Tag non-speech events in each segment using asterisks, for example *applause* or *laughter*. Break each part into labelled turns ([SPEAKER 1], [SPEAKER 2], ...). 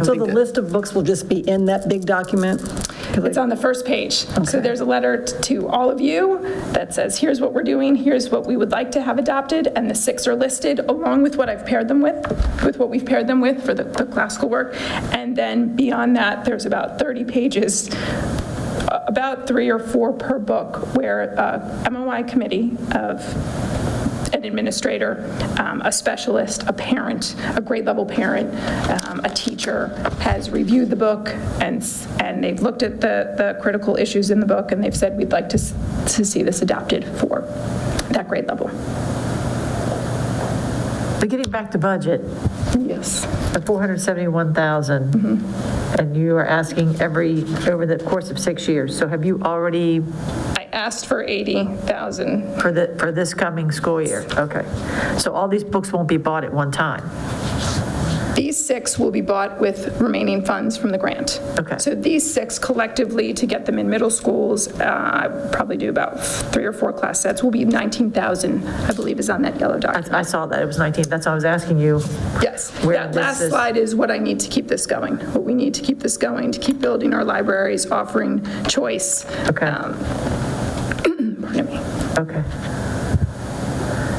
[SPEAKER 1] So the list of books will just be in that big document? 'Cause
[SPEAKER 2] It's on the first page. So there's a letter t- to all of you that says, here's what we're doing, here's what we would like to have adopted, and the six are listed along with what I've paired them with, with what we've paired them with for the the classical work. And then beyond that, there's about 30 pages, a- about three or four per book, where uh, MOI committee of an administrator, um, a specialist, a parent, a grade level parent, um, a teacher has reviewed the book and, s- and they've looked at the, the critical issues in the book and they've said, we'd like to, s- to see this adopted for that grade level.
[SPEAKER 3] But getting back to budget,
[SPEAKER 2] Yes.
[SPEAKER 3] the 471,000,
[SPEAKER 2] Mm-hmm.
[SPEAKER 3] and you are asking every, over the course of six years. So have you already,
[SPEAKER 2] I asked for 80,000.
[SPEAKER 3] for the, for this coming school year? Okay. So all these books won't be bought at one time?
[SPEAKER 2] These six will be bought with remaining funds from the grant.
[SPEAKER 3] Okay.
[SPEAKER 2] So these six collectively, to get them in middle schools, uh, probably do about three or four class sets, will be 19,000, I believe is on that yellow document.
[SPEAKER 3] I saw that, it was 19, that's why I was asking you.
[SPEAKER 2] Yes,
[SPEAKER 3] Where
[SPEAKER 2] that
[SPEAKER 3] this
[SPEAKER 2] last
[SPEAKER 3] is-
[SPEAKER 2] slide is what I need to keep this going, what we need to keep this going, to keep building our libraries, offering choice.
[SPEAKER 3] Okay.
[SPEAKER 2] Um, *clears throat* Pardon me.
[SPEAKER 3] Okay.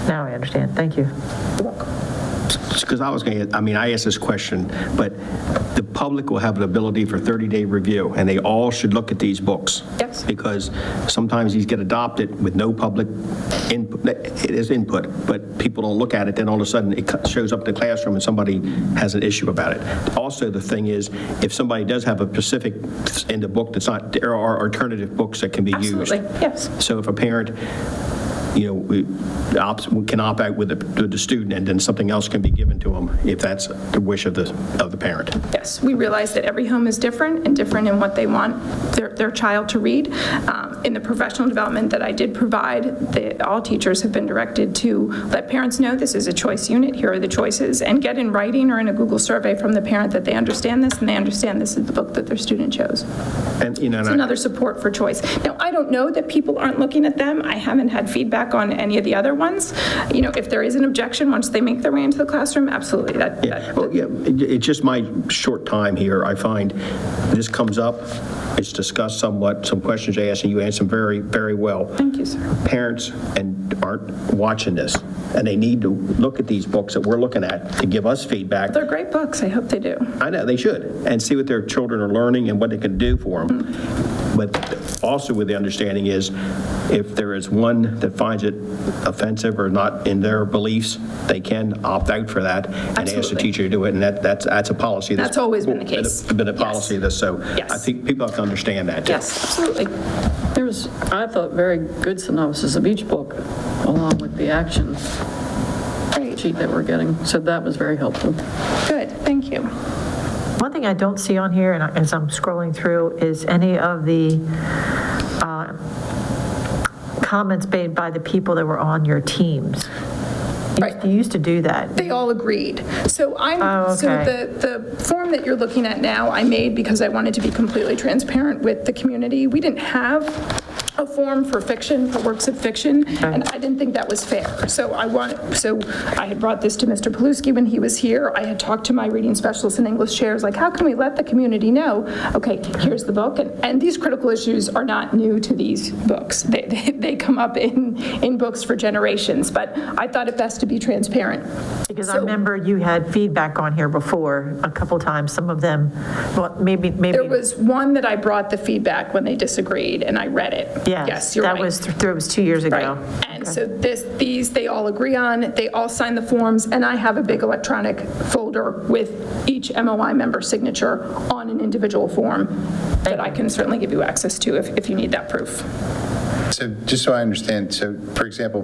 [SPEAKER 3] Now I understand, thank you.
[SPEAKER 4] Because I was going to, I mean, I asked this question, but the public will have the ability for 30-day review, and they all should look at these books.
[SPEAKER 2] Yes.
[SPEAKER 4] Because sometimes these get adopted with no public input, it is input, but people don't look at it, then all of a sudden, it co- shows up in the classroom and somebody has an issue about it. Also, the thing is, if somebody does have a specific in the book that's not, there are alternative books that can be used.
[SPEAKER 2] Absolutely, yes.
[SPEAKER 4] So if a parent, you know, we opts, we can opt out with the, with the student, and then something else can be given to them, if that's the wish of the, of the parent.
[SPEAKER 2] Yes, we realize that every home is different and different in what they want their, their child to read. Um, In the professional development that I did provide, the, all teachers have been directed to let parents know this is a choice unit, here are the choices, and get in writing or in a Google survey from the parent that they understand this and they understand this is the book that their student chose.
[SPEAKER 4] And, you know, and
[SPEAKER 2] It's
[SPEAKER 4] I-
[SPEAKER 2] another support for choice. Now, I don't know that people aren't looking at them. I haven't had feedback on any of the other ones. You know, if there is an objection, once they make their way into the classroom, absolutely, that, that-
[SPEAKER 4] Well, yeah, it- it's just my short time here, I find this comes up, it's discussed somewhat, some questions I asked, and you answered them very, very well.
[SPEAKER 2] thank you, sir.
[SPEAKER 4] Parents and aren't watching this, and they need to look at these books that we're looking at to give us feedback.
[SPEAKER 2] They're great books, I hope they do.
[SPEAKER 4] I know, they should, and see what their children are learning and what they can do for them. But also with the understanding is, if there is one that finds it offensive or not in their beliefs, they can opt out for that and ask the
[SPEAKER 2] Absolutely.
[SPEAKER 4] teacher to do it, and that, that's, that's a policy.
[SPEAKER 2] That's always been the case.
[SPEAKER 4] Been a
[SPEAKER 2] Yes.
[SPEAKER 4] policy of this, so I
[SPEAKER 2] Yes.
[SPEAKER 4] think people have to understand that.
[SPEAKER 2] Yes, absolutely.
[SPEAKER 5] There was, I thought, very good synopsis of each book, along with the action
[SPEAKER 2] Great,
[SPEAKER 5] sheet that we're getting, so that was very helpful.
[SPEAKER 2] good, thank you.
[SPEAKER 3] One thing I don't see on here, and I- as I'm scrolling through, is any of the uh, comments made by the people that were on your teams. You-
[SPEAKER 2] Right.
[SPEAKER 3] You used to do that.
[SPEAKER 2] They all agreed. So I'm,
[SPEAKER 3] Oh,
[SPEAKER 2] so
[SPEAKER 3] okay.
[SPEAKER 2] the, the form that you're looking at now, I made because I wanted to be completely transparent with the community. We didn't have a form for fiction, for works of fiction, and I didn't think that was fair. So I want, so I had brought this to Mr. Paluski when he was here. I had talked to my reading specialist and English chairs, like, how can we let the community know, okay, here's the book? And, and these critical issues are not new to these books. They, they, *laughs* they come up in, in books for generations, but I thought it best to be transparent.
[SPEAKER 3] Because I
[SPEAKER 2] So-
[SPEAKER 3] remember you had feedback on here before, a couple times, some of them, well, maybe, maybe.
[SPEAKER 2] There was one that I brought the feedback when they disagreed, and I read it.
[SPEAKER 3] Yes,
[SPEAKER 2] you're right.
[SPEAKER 3] that was, th- that was two years ago.
[SPEAKER 2] Right. And so this, these, they all agree on, they all sign the forms, and I have a big electronic folder with each MOI member's signature on an individual form that I can certainly give you access to if, if you need that proof.
[SPEAKER 6] So just so I understand, so for example,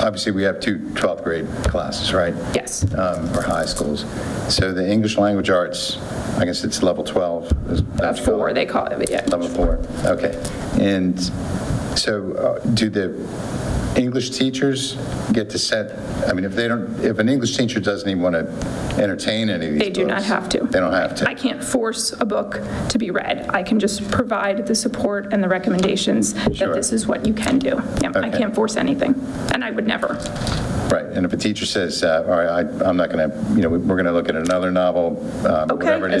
[SPEAKER 6] obviously we have two 12th grade classes, right?
[SPEAKER 2] Yes.
[SPEAKER 6] Um, Or high schools. So the English Language Arts, I guess it's level 12. is-
[SPEAKER 2] Uh, Four, they call it, yeah.
[SPEAKER 6] Level four, okay. And so uh, do the English teachers get to set, I mean, if they don't, if an English teacher doesn't even want to entertain any of these
[SPEAKER 2] They do not
[SPEAKER 6] books,
[SPEAKER 2] have to.
[SPEAKER 6] They don't have to.
[SPEAKER 2] I can't force a book to be read. I can just provide the support and the recommendations that
[SPEAKER 6] Sure.
[SPEAKER 2] this is what you can do. Yeah, I
[SPEAKER 6] Okay.
[SPEAKER 2] can't force anything, and I would never.
[SPEAKER 6] Right, and if a teacher says, uh, all right, I- I'm not going to, you know, we're going to look at another novel, um,
[SPEAKER 2] Okay,
[SPEAKER 6] whatever it is.